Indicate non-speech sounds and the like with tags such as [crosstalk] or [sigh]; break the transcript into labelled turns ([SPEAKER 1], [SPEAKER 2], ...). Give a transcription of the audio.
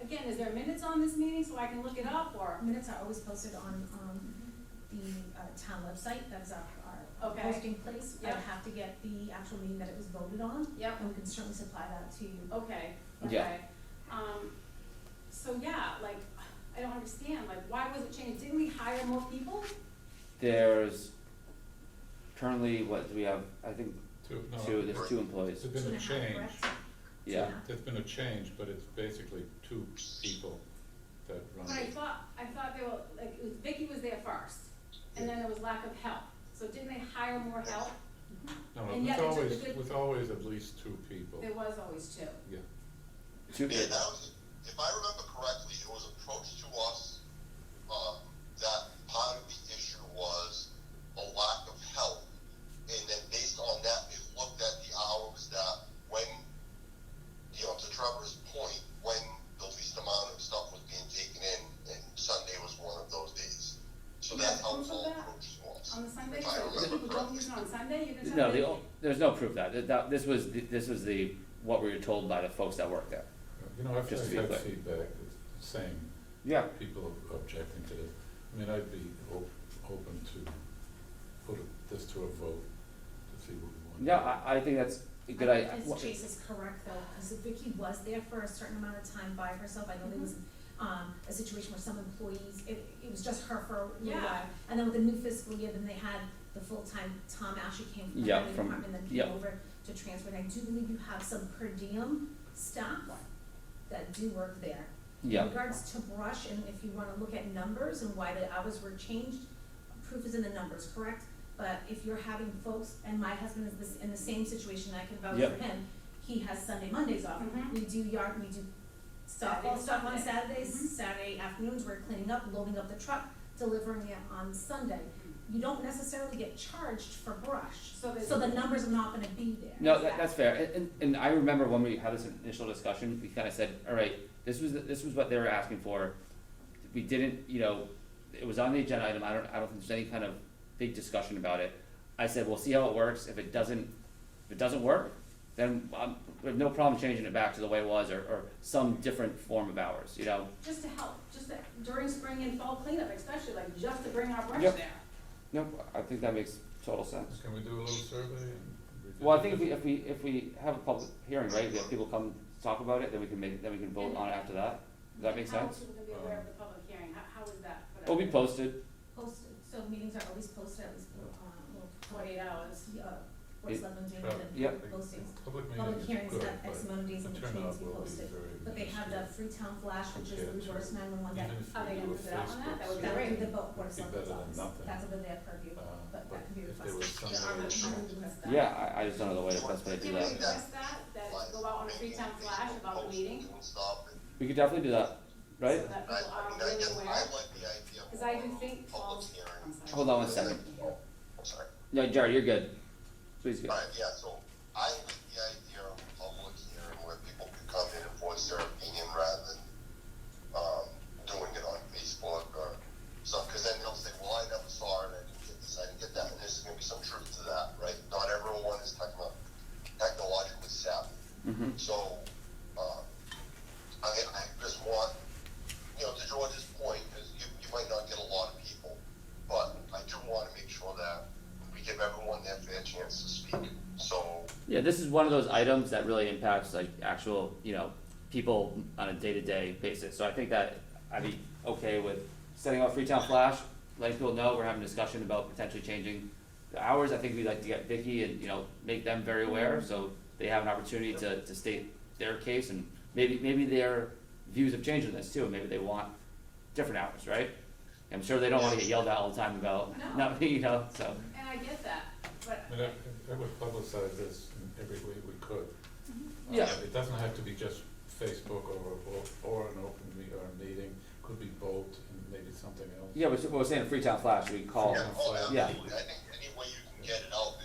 [SPEAKER 1] again, is there minutes on this meeting so I can look it up or?
[SPEAKER 2] Minutes are always posted on, um, the, uh, town website, that is our, our
[SPEAKER 1] Okay.
[SPEAKER 2] posting place. I
[SPEAKER 1] Yep.
[SPEAKER 2] have to get the actual meeting that it was voted on,
[SPEAKER 1] Yep,
[SPEAKER 2] and we can certainly supply that to you.
[SPEAKER 1] okay,
[SPEAKER 3] Yeah.
[SPEAKER 1] okay. Um, so yeah, like, I don't understand, like, why was it changed? Didn't we hire more people?
[SPEAKER 3] There's currently, what, do we have, I think,
[SPEAKER 4] Two, no.
[SPEAKER 3] two, there's two employees,
[SPEAKER 4] There's been a
[SPEAKER 2] Two and a half,
[SPEAKER 4] change,
[SPEAKER 2] correct?
[SPEAKER 3] yeah.
[SPEAKER 4] there's been a change, but it's basically two people that run
[SPEAKER 1] But I
[SPEAKER 4] it.
[SPEAKER 1] thought, I thought they were, like, it was, Vicky was there first, and then there was lack of help. So didn't they hire more help?
[SPEAKER 4] No,
[SPEAKER 1] and
[SPEAKER 4] it was
[SPEAKER 1] yet it took
[SPEAKER 4] always,
[SPEAKER 1] a good-
[SPEAKER 4] was always at least two people,
[SPEAKER 1] There was always two.
[SPEAKER 4] yeah.
[SPEAKER 3] Two,
[SPEAKER 5] Yeah, that was, um, if I remember correctly, it was approached to us, um, that part of the issue was a lack of help. And then based on that, they looked at the hours that when, you know, to Trevor's point, when the least amount of stuff was being taken in, and Sunday was one of those days. So
[SPEAKER 1] You
[SPEAKER 5] that's
[SPEAKER 1] have
[SPEAKER 5] how
[SPEAKER 1] proof
[SPEAKER 5] the
[SPEAKER 1] of
[SPEAKER 5] whole
[SPEAKER 1] that?
[SPEAKER 5] approach was.
[SPEAKER 1] On the Sunday,
[SPEAKER 5] If I
[SPEAKER 1] so
[SPEAKER 5] remember
[SPEAKER 1] people don't
[SPEAKER 5] correctly.
[SPEAKER 1] use it on Sunday, you can tell
[SPEAKER 3] no,
[SPEAKER 1] me?
[SPEAKER 3] the, o- there's no proof that, That- that, this was, the- this was the, what we were told by the folks that work there.
[SPEAKER 4] You know, after
[SPEAKER 3] Just to be
[SPEAKER 4] I've had
[SPEAKER 3] clear.
[SPEAKER 4] feedback, the same
[SPEAKER 3] Yeah.
[SPEAKER 4] people objecting to this, I mean, I'd be op- open to put a- this to a vote to see what we want.
[SPEAKER 3] Yeah, I, I think that's a good idea.
[SPEAKER 2] I think his Chase is correct though, because Vicky was there for a certain amount of time by herself, I know there was, um, a situation where some employees, it, it was just her for a little
[SPEAKER 1] Yeah.
[SPEAKER 2] while. And then with the new fiscal year, then they had the full-time, Tom Ashley came from the
[SPEAKER 3] Yeah,
[SPEAKER 2] highway
[SPEAKER 3] from-
[SPEAKER 2] department, then
[SPEAKER 3] yeah.
[SPEAKER 2] came over to transfer, and I do believe you have some per diem staff that do work there.
[SPEAKER 3] Yeah,
[SPEAKER 2] In regards to brush, and if you wanna look at numbers and why the hours were changed, proof is in the numbers, correct? But if you're having folks, and my husband is this, in the same situation, I can vouch
[SPEAKER 3] Yep.
[SPEAKER 2] for him, he has Sunday, Mondays off.
[SPEAKER 1] Mhm.
[SPEAKER 2] We do yard, we do softball
[SPEAKER 1] Saturday,
[SPEAKER 2] stuff
[SPEAKER 1] Sunday.
[SPEAKER 2] on
[SPEAKER 1] Mhm.
[SPEAKER 2] Saturdays, Saturday afternoons, we're cleaning up, loading up the truck, delivering it on Sunday. You don't necessarily get charged for brush,
[SPEAKER 1] So there's.
[SPEAKER 2] so the numbers are not gonna be there.
[SPEAKER 3] no, that, that's fair, and, and, and I remember when we had this initial discussion, we kinda said, alright, this was, the- this was what they were asking for. We didn't, you know, it was on the agenda item, I don't, I don't think there's any kind of big discussion about it. I said, we'll see how it works, if it doesn't, if it doesn't work, then um we have no problem changing it back to the way it was, or, or some different form of hours, you know?
[SPEAKER 1] Just to help, just to- during spring and fall cleanup especially, like just to bring our brush
[SPEAKER 3] Yep.
[SPEAKER 1] there.
[SPEAKER 3] No, I think that makes total sense.
[SPEAKER 4] Can we do a little survey and? revisit
[SPEAKER 3] Well, I think if
[SPEAKER 4] this?
[SPEAKER 3] we, if we, if we have a public hearing, right, if we have people come talk about it, then we can make, then we can vote on it after that. Does that make
[SPEAKER 1] How else
[SPEAKER 3] sense?
[SPEAKER 1] are we gonna be aware of the public hearing? How, how is that? put
[SPEAKER 3] It'll
[SPEAKER 1] out
[SPEAKER 3] be
[SPEAKER 1] there?
[SPEAKER 3] posted,
[SPEAKER 2] Posted, so meetings are always posted at least, um, well,
[SPEAKER 1] Forty-eight hours.
[SPEAKER 2] Yeah, or
[SPEAKER 3] It-
[SPEAKER 2] seven days,
[SPEAKER 4] Well,
[SPEAKER 3] Yep.
[SPEAKER 2] and postings.
[SPEAKER 4] Public meeting
[SPEAKER 2] Public
[SPEAKER 4] is
[SPEAKER 2] hearings
[SPEAKER 4] good,
[SPEAKER 2] have X
[SPEAKER 4] but
[SPEAKER 2] amount of days
[SPEAKER 4] the
[SPEAKER 2] in between to
[SPEAKER 4] turnout
[SPEAKER 2] be
[SPEAKER 4] will be
[SPEAKER 2] posted,
[SPEAKER 4] very
[SPEAKER 2] but they have the
[SPEAKER 4] minuscule.
[SPEAKER 2] Freetown Flash, which is the
[SPEAKER 4] Compared to-
[SPEAKER 2] reverse nine-one-one that,
[SPEAKER 4] Even if
[SPEAKER 1] Are
[SPEAKER 4] we
[SPEAKER 1] they
[SPEAKER 4] do
[SPEAKER 1] gonna
[SPEAKER 4] a
[SPEAKER 1] put it out on that?
[SPEAKER 4] Facebook
[SPEAKER 1] That would be
[SPEAKER 2] that would
[SPEAKER 4] survey,
[SPEAKER 2] be the vote board of
[SPEAKER 4] Mm-hmm. Be better
[SPEAKER 2] selectmen's office,
[SPEAKER 4] than nothing.
[SPEAKER 2] that's under their purview,
[SPEAKER 4] uh,
[SPEAKER 2] but
[SPEAKER 4] but
[SPEAKER 2] that can be
[SPEAKER 4] if
[SPEAKER 2] requested.
[SPEAKER 1] Yeah,
[SPEAKER 4] there was some
[SPEAKER 1] I'm
[SPEAKER 4] way
[SPEAKER 1] not
[SPEAKER 4] to-
[SPEAKER 1] sure we can request that.
[SPEAKER 3] yeah, I, I just don't know the way, the best way to do
[SPEAKER 1] Can we
[SPEAKER 3] that.
[SPEAKER 1] request that, that go out on a free time flash about the meeting?
[SPEAKER 5] And stuff, and
[SPEAKER 3] We could definitely do that,
[SPEAKER 1] So
[SPEAKER 3] right?
[SPEAKER 1] that people
[SPEAKER 5] I,
[SPEAKER 1] are
[SPEAKER 5] I mean, I
[SPEAKER 1] really
[SPEAKER 5] guess I
[SPEAKER 1] aware,
[SPEAKER 5] like the idea of.
[SPEAKER 1] cause I do
[SPEAKER 5] a
[SPEAKER 1] think
[SPEAKER 5] Public
[SPEAKER 1] fall,
[SPEAKER 5] hearing.
[SPEAKER 1] I'm sorry.
[SPEAKER 3] Hold on one second.
[SPEAKER 5] I'm sorry.
[SPEAKER 3] No, Jared, you're good. Please go.
[SPEAKER 5] Alright, yeah, so I like the idea of a public hearing where people can come in and voice their opinion rather than, um, doing it on Facebook or stuff, cause then they'll say, well, I never saw it, I didn't get this, I didn't get that, and there's gonna be some truth to that, right? Not everyone is techno- technologically savvy.
[SPEAKER 3] Mhm.
[SPEAKER 5] So, uh, I, I just want, you know, to George's point, because you, you might not get a lot of people, but I do want to make sure that we give everyone their fair chance to speak. So,
[SPEAKER 3] Yeah, this is one of those items that really impacts like actual, you know, people on a day-to-day basis, so I think that I'd be okay with setting up Freetown Flash, letting people know we're having a discussion about potentially changing the hours, I think we'd like to get Vicky and, you know, make them very aware, so they have an opportunity to, to state their case and maybe, maybe their views have changed on this too, maybe they want different hours, right? I'm sure they don't wanna get yelled at all the time about,
[SPEAKER 1] No.
[SPEAKER 3] not, [laughs] you know, so,
[SPEAKER 1] And I get that, but
[SPEAKER 4] I mean, I, I would publicize this in every way we could.
[SPEAKER 2] Mm-hmm.
[SPEAKER 4] Uh,
[SPEAKER 3] Yeah.
[SPEAKER 4] It doesn't have to be just Facebook or, or, or an open me, or a meeting, could be both and maybe something else.
[SPEAKER 3] yeah, we're, we're saying Freetown Flash, we call,
[SPEAKER 5] yeah, oh,
[SPEAKER 3] yeah.
[SPEAKER 5] absolutely. I think any way you can get it out